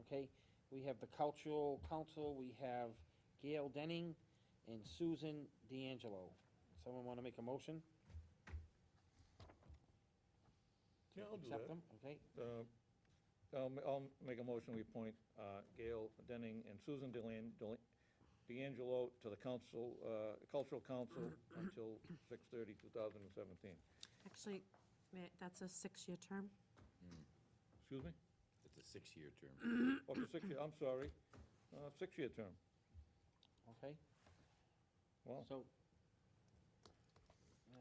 okay? We have the cultural council, we have Gail Denning and Susan D'Angelo. Someone wanna make a motion? to Yeah, I'll do Accept that. them, okay? Uh, I'll, ma- I'll make a motion, we appoint uh, Gail Denning and Susan Delan, Del- D'Angelo to the council, uh, Cultural Council until 6/30, 2017. Actually, may- that's a six-year term. Excuse me? It's a six-year term. Oh, for six year, I'm sorry, Uh, six-year term. Okay? Wow. So.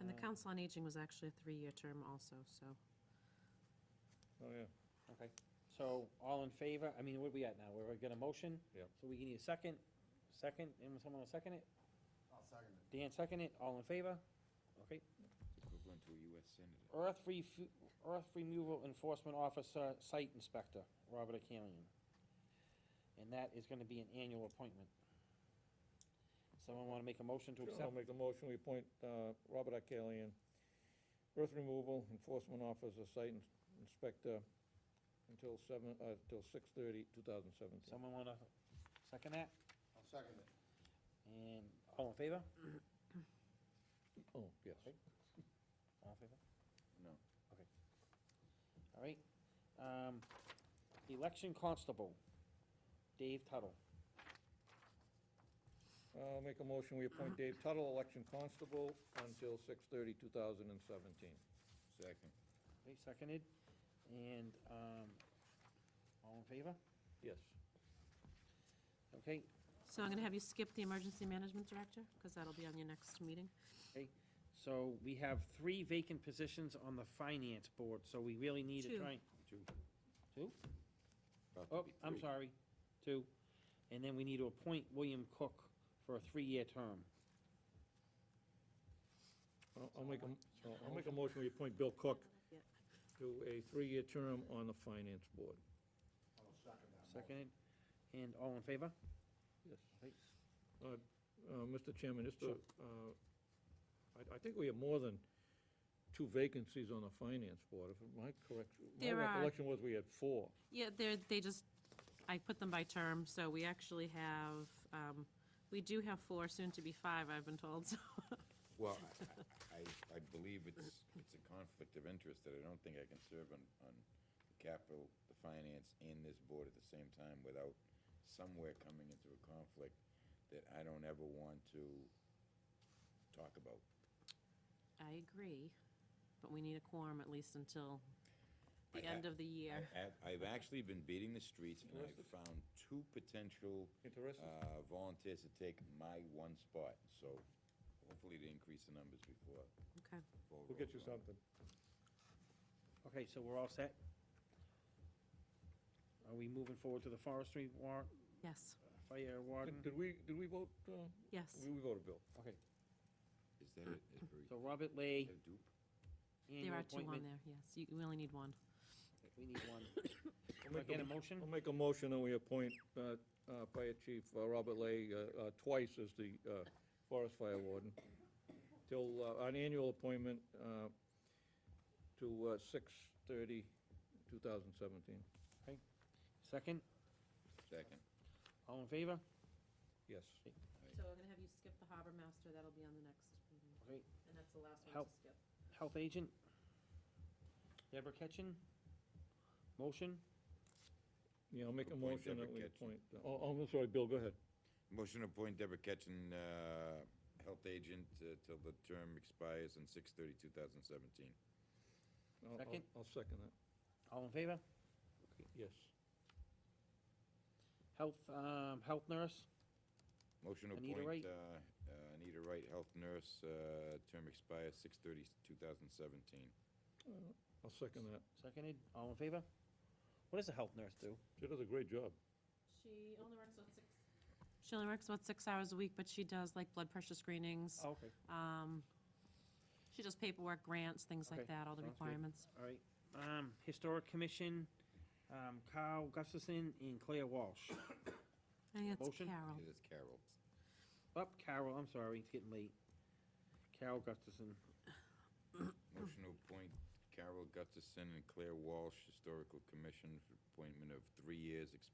And the uh, Council on Aging was actually a three-year term also, so. Oh, yeah. Okay, so all in favor, I mean, what we at now, we're gonna motion? Yep. So we need a second, second, and someone will second it? I'll second it. Dan second it, all in favor? Okay, Equivalent to a U.S. senator. earth refu, earth removal enforcement officer, site inspector, Robert Akalian. And that is gonna be an annual appointment. Someone wanna make a motion to I'll accept? make the motion, we appoint uh, Robert Arcalian, earth removal enforcement officer, site ins- inspector, until seven, uh, until 6/30, 2017. Someone wanna second that? I'll second it. And all in favor? Oh, yes. All in favor? No. Okay. All right. Um, election constable, Dave Tuttle. Uh, make a motion, we appoint Dave Tuttle, election constable, until 6/30, 2017. Second. Okay, seconded. And, um, all in favor? Yes. Okay, So I'm going to have you skip the Emergency Management Director, because that'll be on your next meeting. so we have three vacant positions on the finance board, so we really need to Two. try. Two. Two? About to Oh, be I'm three. sorry, two. And then we need to appoint William Cook for a three-year term. I'll- I'll make a, m- I'll- I'll make a motion, we appoint Bill Cook Yep. to a three-year term on the finance board. I'll second that. motion. Seconded. And all in favor? Yes. Okay. Uh, uh, Mr. Chairman, just, to, Sure. uh, I, I think we have more than two vacancies on the finance board. If my correct, my There are. recollection was we had four. Yeah, they're, they just, I put them by term, so we actually have, um, we do have four, soon to be five, I've been told, so. Well, I- I, I- I believe it's, it's a conflict of interest that I don't think I can serve on, on the capital, the finance, and this board at the same time without somewhere coming into a conflict that I don't ever want to talk about. I agree, but we need a quorum at least until I the ha- end of the I year. have- I've actually been beating the streets, and I've Interested? found two potential Interested? uh, volunteers to take my one spot, so hopefully to increase the numbers before. Okay. before We'll get roll you call. something. Okay, so we're all set? Are we moving forward to the forestry warrant, Yes, fire warden? Did- Did we, did we vote, uh, yes. we we voted Bill? Okay, Is that it? Is there so Robert Lay, a dupe? There annual are two on appointment. there, yes. You, we only need one. We need one. I'll Can I make a- get a motion? I'll make a motion that we appoint uh, uh, Fire Chief uh, Robert Lay uh, uh, twice as the uh, Forest Fire Warden, till uh, an annual appointment uh, to uh, 6/30, 2017. Second, Second. all in favor? Yes. So I'm going to have you skip the harbor master, that'll be on the next meeting, Okay, and that's the last Help. skip. health agent? Deborah Ketchin? Motion? Yeah, I'll make a Appoint motion that Deborah we Ketchum. appoint, oh, oh, I'm sorry, Bill, go ahead. Motion to appoint Deborah Ketchin, uh, health agent, uh, till the term expires on 6 2017 I'll- I'll- Second? I'll second that, All in favor? yes. Health, um, health nurse? Motion to Anita Wright. appoint uh, uh, Anita Wright, health nurse, uh, term expires 6 2017 I'll second that. Seconded, all in favor? What does a health nurse do? She does a great job. She only works about six. She only works about six hours a week, but she does like blood pressure screenings. Oh, Okay, Um, she does paperwork, grants, things like Okay, that, all the sounds good. requirements. all right. Um, historic commission, um, Kyle Gustafson and Claire Walsh. I think that's Motion? Carol. It is Carol. Up, Carol, I'm sorry, it's getting late. Carol Gustafson. Motion to appoint Carol Gustafson and Claire Walsh, Historical Commission, for appointment of three years, exp-